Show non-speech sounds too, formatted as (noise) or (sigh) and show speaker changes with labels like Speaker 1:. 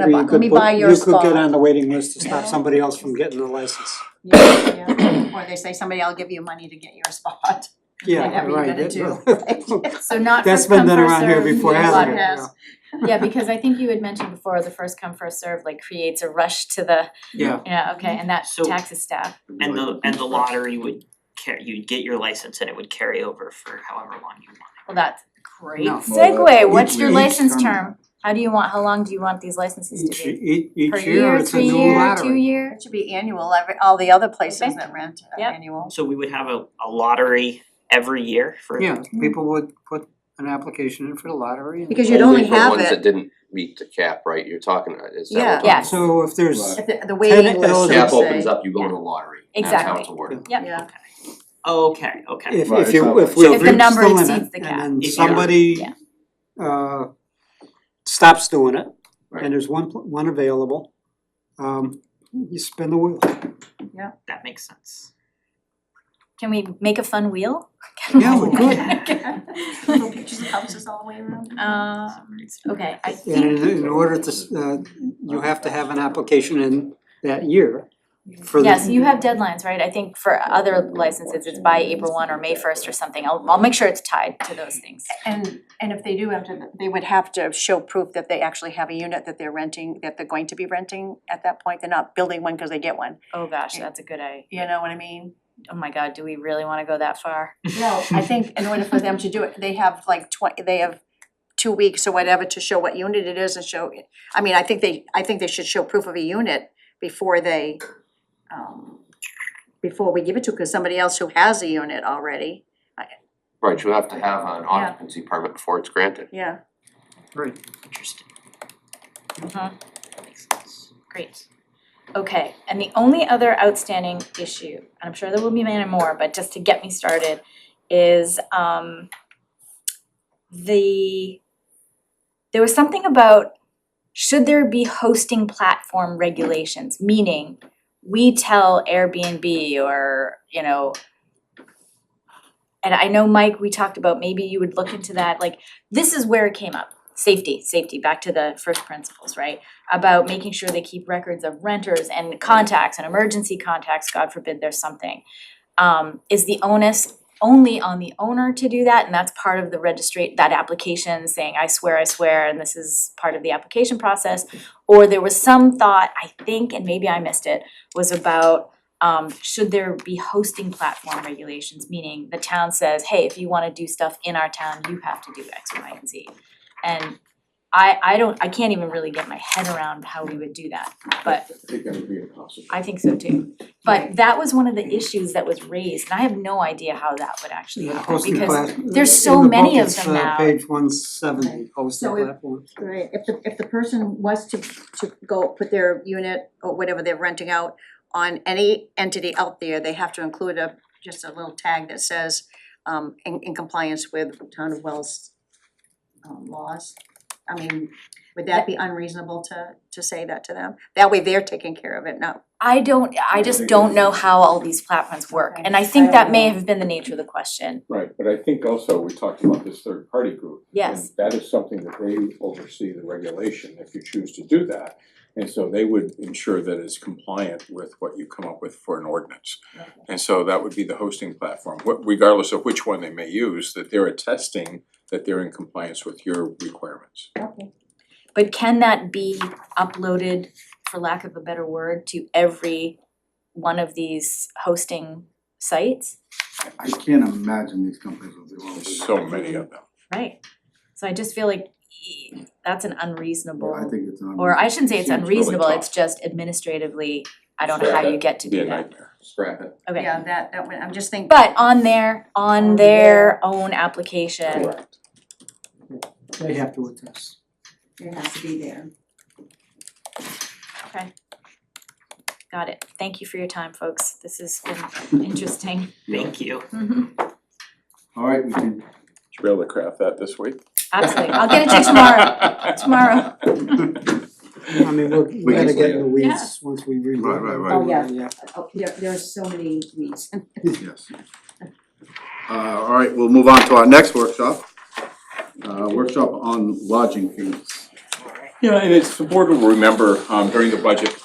Speaker 1: Let me-
Speaker 2: You
Speaker 1: let
Speaker 2: could
Speaker 1: me
Speaker 2: put-
Speaker 1: buy your
Speaker 2: You could
Speaker 1: spot.
Speaker 2: get on the waiting list to stop somebody else from getting the license.
Speaker 1: Yeah, yeah. (clears throat) Or they say, somebody, I'll give you money to get your spot, (laughs)
Speaker 2: Yeah,
Speaker 1: whatever you're
Speaker 2: right.
Speaker 1: gonna
Speaker 2: that-
Speaker 1: do.
Speaker 3: So not
Speaker 2: That's
Speaker 3: first
Speaker 2: been
Speaker 3: come,
Speaker 2: done
Speaker 3: first
Speaker 2: around here
Speaker 3: served.
Speaker 2: before,
Speaker 3: yeah.
Speaker 2: hasn't it?
Speaker 1: Yes.
Speaker 3: Yeah, because I think you had mentioned before, the first come, first served like creates a rush to the,
Speaker 2: Yeah,
Speaker 3: yeah, okay, and that
Speaker 4: So-
Speaker 3: taxes staff.
Speaker 4: And the and the lottery would carry, you'd get your license and it would carry over for however long you want.
Speaker 3: Well, that's great
Speaker 2: No.
Speaker 3: segue, what's your
Speaker 2: Each-
Speaker 3: license term? How do you want, how long do you want these licenses to
Speaker 2: (laughs) each,
Speaker 3: be?
Speaker 2: each, each year, it's a new
Speaker 3: Per year, three year, two
Speaker 2: lottery.
Speaker 3: year?
Speaker 1: It should be annual, every, all the other places
Speaker 3: Okay.
Speaker 1: that rent are
Speaker 3: Yep.
Speaker 1: annual.
Speaker 4: So we would have a a lottery every year for
Speaker 2: Yeah, people would put an application in for the lottery and.
Speaker 1: Because you'd only have
Speaker 5: Only for ones that
Speaker 1: it,
Speaker 5: didn't meet the cap, right, you're talking, uh, is that what
Speaker 1: Yeah.
Speaker 5: we're talking
Speaker 3: Yes.
Speaker 2: So if there's,
Speaker 1: if the, the waiting list,
Speaker 2: eligible-
Speaker 1: they
Speaker 5: Cap
Speaker 1: say.
Speaker 5: opens up, you go in the lottery, that's how
Speaker 3: Exactly.
Speaker 5: it's awarded.
Speaker 3: Yep.
Speaker 1: (laughs) Yeah,
Speaker 4: Oh, Okay, okay.
Speaker 2: if
Speaker 6: Right,
Speaker 2: if you,
Speaker 6: exactly.
Speaker 2: if we
Speaker 3: If the
Speaker 2: reach
Speaker 3: number
Speaker 2: the limit
Speaker 3: exceeds the
Speaker 2: and
Speaker 3: cap.
Speaker 2: then
Speaker 4: Yeah.
Speaker 2: somebody
Speaker 3: Yeah.
Speaker 2: uh stops doing it
Speaker 5: Right.
Speaker 2: and there's one pl- one available, um you spin the wheel.
Speaker 4: That makes sense.
Speaker 3: Can we make a fun wheel?
Speaker 2: (laughs) Yeah, we
Speaker 3: (laughs) could.
Speaker 1: just helps us all the way around.
Speaker 3: Uh, okay, I
Speaker 2: And
Speaker 3: think,
Speaker 2: in in order to s- uh you have to have an application in that year for the.
Speaker 3: yeah, so you have deadlines, right? I think for other licenses, it's by April one or May first or something, I'll I'll make sure it's tied to those things.
Speaker 1: And, and if they do have to, they would have to show proof that they actually have a unit that they're renting, that they're going to be renting at that point, they're not building one because they get one,
Speaker 3: Oh gosh, that's a good idea.
Speaker 1: you know what I mean?
Speaker 3: Oh my god, do we really wanna go that far?
Speaker 1: No, I think in order for them to do it, they have like twenty, they have two weeks or whatever to show what unit it is and show, I mean, I think they, I think they should show proof of a unit before they, um, before we give it to, cause somebody else who has a unit already,
Speaker 5: Right, you have to have an occupancy permit before it's granted.
Speaker 1: yeah.
Speaker 4: Interesting.
Speaker 3: Uh-huh.
Speaker 4: That makes sense.
Speaker 3: Great. Okay, and the only other outstanding issue, and I'm sure there will be many more, but just to get me started, is um the there was something about should there be hosting platform regulations, meaning we tell Airbnb or, you know, and I know Mike, we talked about maybe you would look into that, like this is where it came up. Safety, safety, back to the first principles, right? about making sure they keep records of renters and contacts and emergency contacts, God forbid there's something. Um, is the onus only on the owner to do that, and that's part of the registrate, that application saying, I swear, I swear, and this is part of the application process? Or there was some thought, I think, and maybe I missed it, was about um should there be hosting platform regulations, meaning the town says, hey, if you wanna do stuff in our town, you have to do X, Y, and Z. And I I don't, I can't even really get my head around how we would do that, but
Speaker 6: I think that would be impossible.
Speaker 3: I think so too. But that was one of the issues that was raised, and I have no idea how that would actually
Speaker 2: Yeah,
Speaker 3: happen,
Speaker 2: hosting
Speaker 3: because
Speaker 2: class,
Speaker 3: there's so many of them now.
Speaker 2: In the book, it's uh page one seventy, oh, hosting
Speaker 1: So if-
Speaker 2: platforms.
Speaker 1: Right, if the, if the person was to, to go put their unit or whatever they're renting out on any entity out there, they have to include a, just a little tag that says, um, in, in compliance with town of Wells um, laws. I mean, would that be unreasonable to, to say that to them? That way they're taking care of it, no,
Speaker 3: I don't, I just don't know how all these platforms work, and I think that may have been the nature of the question,
Speaker 6: Right, but I think also we talked about this third party group.
Speaker 3: yes.
Speaker 6: And that is something that they oversee the regulation if you choose to do that. And so they would ensure that it's compliant with what you come up with for an ordinance. And so that would be the hosting platform, wh- regardless of which one they may use, that they're attesting that they're in compliance with your requirements.
Speaker 3: But can that be uploaded, for lack of a better word, to every one of these hosting sites?
Speaker 7: I can't imagine these companies will do all
Speaker 6: There's
Speaker 7: this.
Speaker 6: So many of them.
Speaker 3: Right. So I just feel like e- that's an unreasonable.
Speaker 7: I think it's.
Speaker 3: or I shouldn't say it's
Speaker 6: Seems really
Speaker 3: unreasonable,
Speaker 6: tough.
Speaker 3: it's just administratively, I don't know how you get to
Speaker 6: Be
Speaker 3: do
Speaker 6: a
Speaker 3: that,
Speaker 6: nightmare.
Speaker 5: Scrap it.
Speaker 3: okay.
Speaker 1: yeah, that, that, would- I'm just thinking.
Speaker 3: But on their, on their own application,
Speaker 6: Correct.
Speaker 2: They have to attest.
Speaker 1: It has to be there.
Speaker 3: got it, thank you for your time, folks, this has been interesting. (laughs)
Speaker 4: Thank you.
Speaker 7: Alright, we can,
Speaker 6: Should be able to craft that this week.
Speaker 3: Absolutely, I'll get it to you
Speaker 6: (laughs)
Speaker 3: tomorrow, tomorrow.
Speaker 2: I mean, we're we're
Speaker 7: can
Speaker 2: gonna
Speaker 7: say
Speaker 2: get in the weeds once we read.
Speaker 7: Right, right, right.
Speaker 1: Oh, yeah.
Speaker 2: Yeah.
Speaker 1: Oh, there, there are so many weeds.
Speaker 7: yes. Uh, alright, we'll move on to our next workshop. Uh, workshop on lodging fees.
Speaker 4: Alright.
Speaker 6: Yeah, and it's important to remember, um, during the budget